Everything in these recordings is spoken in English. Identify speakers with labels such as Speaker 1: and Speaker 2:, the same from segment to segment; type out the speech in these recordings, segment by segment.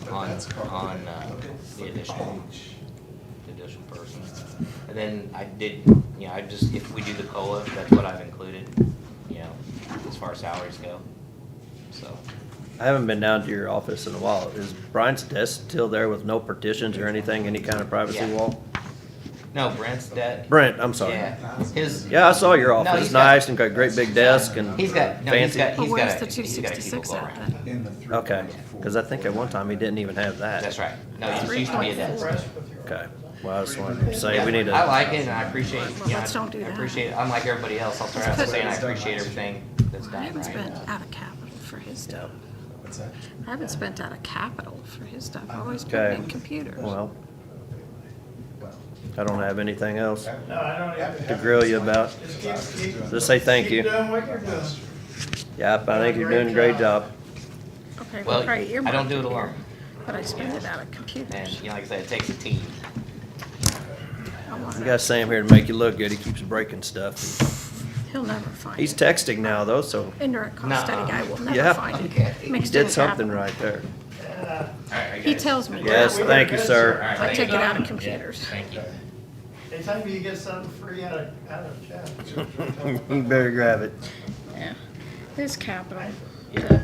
Speaker 1: But
Speaker 2: on,
Speaker 1: that's covered.
Speaker 2: on uh,
Speaker 1: Okay.
Speaker 2: the additional,
Speaker 1: Page.
Speaker 2: the additional person. And then I did, you know, I just, if we do the COLA, that's what I've included, you know, as far as salaries go, so.
Speaker 3: I haven't been down to your office in a while. Is Brian's desk still there with no partitions or anything, any kind of privacy
Speaker 2: Yeah.
Speaker 3: wall?
Speaker 2: No, Brent's debt.
Speaker 3: Brent, I'm sorry.
Speaker 2: Yeah, his.
Speaker 3: Yeah, I saw your
Speaker 2: No,
Speaker 3: office.
Speaker 2: he's
Speaker 3: It's
Speaker 2: got-
Speaker 3: nice and got a great big desk and
Speaker 2: He's got, no, he's
Speaker 3: fancy.
Speaker 2: got,
Speaker 4: But
Speaker 2: he's
Speaker 4: where's
Speaker 2: got,
Speaker 4: the
Speaker 2: a- he's got a people
Speaker 4: 266
Speaker 2: go
Speaker 4: at
Speaker 2: around.
Speaker 4: then?
Speaker 1: In the three
Speaker 3: Okay,
Speaker 1: point four.
Speaker 3: cause I think at one time he didn't even have that.
Speaker 2: That's right. No, it used to be a desk.
Speaker 3: Okay, well, I just wanted to say, we need to.
Speaker 2: I like it and I appreciate, you know,
Speaker 4: Let's don't do
Speaker 2: I
Speaker 4: that.
Speaker 2: appreciate, it. unlike everybody else, I'll start out by
Speaker 4: Let's put-
Speaker 2: saying I appreciate everything that's
Speaker 4: I
Speaker 2: done,
Speaker 4: haven't spent
Speaker 2: right?
Speaker 4: out of capital for his
Speaker 3: Yeah,
Speaker 4: stuff.
Speaker 1: What's that?
Speaker 4: I haven't spent out of capital for his stuff. I always put
Speaker 3: Okay.
Speaker 4: it in computers.
Speaker 3: well,
Speaker 1: Well,
Speaker 3: I don't have anything else
Speaker 5: No, I don't
Speaker 3: to
Speaker 5: either.
Speaker 3: grill you about.
Speaker 5: Just keep, keep.
Speaker 3: Just say thank
Speaker 5: Keep
Speaker 3: you.
Speaker 5: doing what you're doing.
Speaker 3: Yep, I think you're doing a great job.
Speaker 4: Okay,
Speaker 2: Well,
Speaker 4: we'll probably
Speaker 2: I
Speaker 4: earmark
Speaker 2: don't do it
Speaker 4: here,
Speaker 2: alone.
Speaker 4: But I spend it out of
Speaker 2: And,
Speaker 4: computers.
Speaker 2: you know, like I said, it takes a team.
Speaker 4: I want
Speaker 3: We
Speaker 4: it.
Speaker 3: got Sam here to make you look good. He keeps breaking stuff.
Speaker 4: He'll never find it.
Speaker 3: He's texting now though, so
Speaker 4: Indirect
Speaker 2: Nuh-uh.
Speaker 4: cost study guy will
Speaker 3: Yeah.
Speaker 4: never find it.
Speaker 2: Okay.
Speaker 3: he
Speaker 4: Mixed in
Speaker 3: did something
Speaker 4: capital.
Speaker 3: right there.
Speaker 2: Alright, I
Speaker 4: He
Speaker 2: guess.
Speaker 4: tells me.
Speaker 3: Yes,
Speaker 4: that.
Speaker 3: thank you,
Speaker 2: All
Speaker 3: sir.
Speaker 2: right,
Speaker 4: I
Speaker 2: thank
Speaker 4: take
Speaker 2: you.
Speaker 4: it out of
Speaker 2: Yeah,
Speaker 4: computers.
Speaker 2: Thank you.
Speaker 5: Anytime you get something free out of, out of chat.
Speaker 3: You better grab it.
Speaker 4: Yeah. This capital,
Speaker 2: Yeah.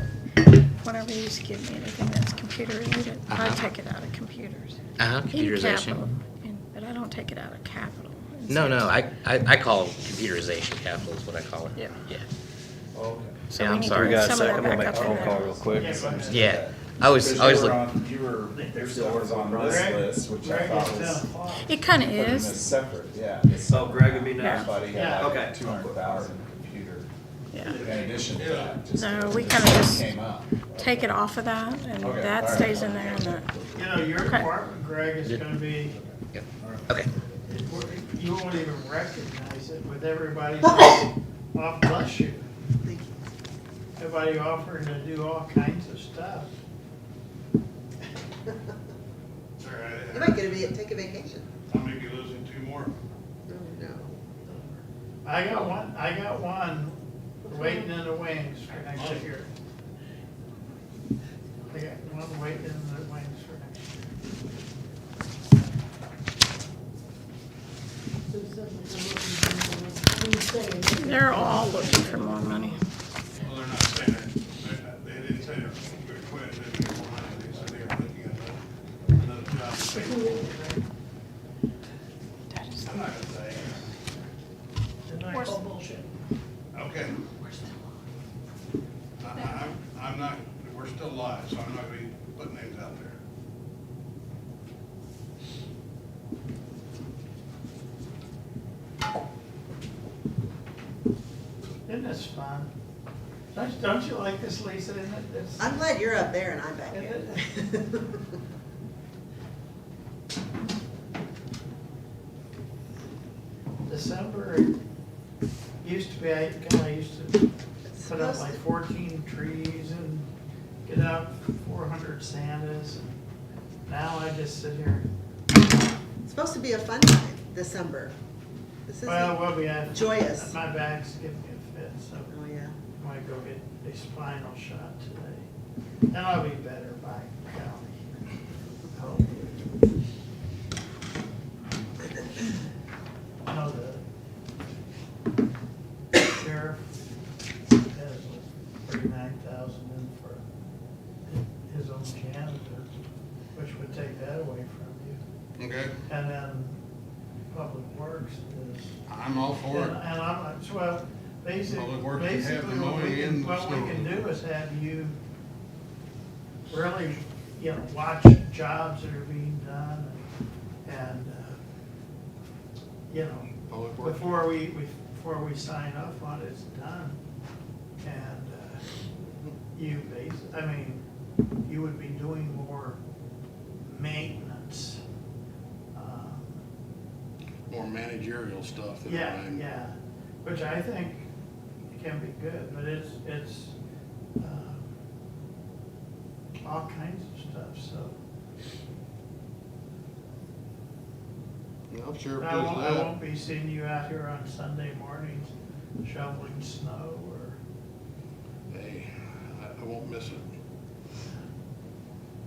Speaker 4: whenever you used to give me anything that's computer related, I
Speaker 2: Uh-huh.
Speaker 4: take it out of computers.
Speaker 2: Uh-huh,
Speaker 4: In capital, and- but I don't take it out of capital.
Speaker 2: No, no, I, I, I call computerization capital is what I call it.
Speaker 4: Yeah.
Speaker 2: Yeah.
Speaker 5: Okay.
Speaker 4: So
Speaker 2: Yeah,
Speaker 4: we
Speaker 2: I'm
Speaker 4: need to
Speaker 2: sorry.
Speaker 3: We got a
Speaker 4: Some of
Speaker 3: second.
Speaker 4: that
Speaker 3: We'll make a
Speaker 4: back up
Speaker 3: phone
Speaker 4: there.
Speaker 3: call real quick.
Speaker 5: Yeah, but-
Speaker 2: Yeah, I always, I always
Speaker 6: Because you were
Speaker 2: look,
Speaker 6: on- You were,
Speaker 5: They're
Speaker 6: still was on this
Speaker 5: Greg-
Speaker 6: list, which I
Speaker 5: Greg
Speaker 6: thought
Speaker 5: is
Speaker 6: was.
Speaker 5: down a lot.
Speaker 4: It kind of
Speaker 6: putting this
Speaker 4: is,
Speaker 6: Separate, yeah.
Speaker 3: Oh, Greg would be next.
Speaker 6: Everybody
Speaker 5: Yeah.
Speaker 6: had
Speaker 3: Okay.
Speaker 6: like two hundred thousand computer
Speaker 4: yeah.
Speaker 6: in addition to that. just
Speaker 4: No,
Speaker 6: that
Speaker 4: we
Speaker 6: it
Speaker 4: kinda just-
Speaker 6: Came up.
Speaker 4: Take it off of that and
Speaker 6: Okay,
Speaker 4: that
Speaker 6: all right.
Speaker 4: stays in there and that.
Speaker 5: You know, your
Speaker 4: Okay.
Speaker 5: department, Greg, is gonna be,
Speaker 2: okay.
Speaker 5: you won't even recognize it with everybody off bless you. Everybody offering to do all kinds of stuff.
Speaker 7: You might get a, va- take a vacation.
Speaker 8: I may be losing two more.
Speaker 7: Oh, no.
Speaker 5: I got one, I got one waiting in the wings for next year. I got one waiting in the wings for next year.
Speaker 4: They're all looking for more money.
Speaker 8: Well, they're not saying they're, they're not- they didn't say they're going to quit, they didn't get more money, they said they were looking at another job.
Speaker 4: That is-
Speaker 8: I'm not gonna say. Okay. I, I, I'm- I'm not, we're still live, so I'm not gonna be putting names out there.
Speaker 5: Isn't this fun? Don't, don't you like this, Lisa? Isn't it, this?
Speaker 7: I'm glad you're up there and I'm back here.
Speaker 5: December, used to be, I, God, I used to put up like fourteen trees and get out four hundred Santas. Now I just sit here,
Speaker 7: It's supposed to be a fun time, December. This isn't,
Speaker 5: well,
Speaker 7: oh,
Speaker 5: we'll be at.
Speaker 7: Joyous. Oh,
Speaker 5: My back's giving me a fit, so
Speaker 7: yeah.
Speaker 5: I might go get a spinal shot today. And I'll be better by golly. Hopefully. I know the sheriff has thirty-nine thousand in for his own janitor, which would take that away from you.
Speaker 8: Okay,
Speaker 5: And then Public Works is
Speaker 8: I'm all for
Speaker 5: and,
Speaker 8: it.
Speaker 5: and I'm, like, so, well, basically,
Speaker 8: Public Works can have the
Speaker 5: basically what we
Speaker 8: mowing
Speaker 5: can,
Speaker 8: and
Speaker 5: what we
Speaker 8: snow.
Speaker 5: can do is have you really, you know, watch jobs that are being done and, and, uh, you know,
Speaker 8: Public Works.
Speaker 5: before we, we- before we sign off on it's done. And, uh, you base, I mean, you would be doing more maintenance. um,
Speaker 8: More managerial stuff than
Speaker 5: yeah,
Speaker 8: I'm.
Speaker 5: yeah, which I think can be good, but it's, it's, um, all kinds of stuff, so.
Speaker 8: I'm sure it
Speaker 5: I
Speaker 8: does
Speaker 5: won't, I won't
Speaker 8: that.
Speaker 5: be seeing you out here on Sunday mornings shoveling snow or,
Speaker 8: Hey, I, I won't miss it.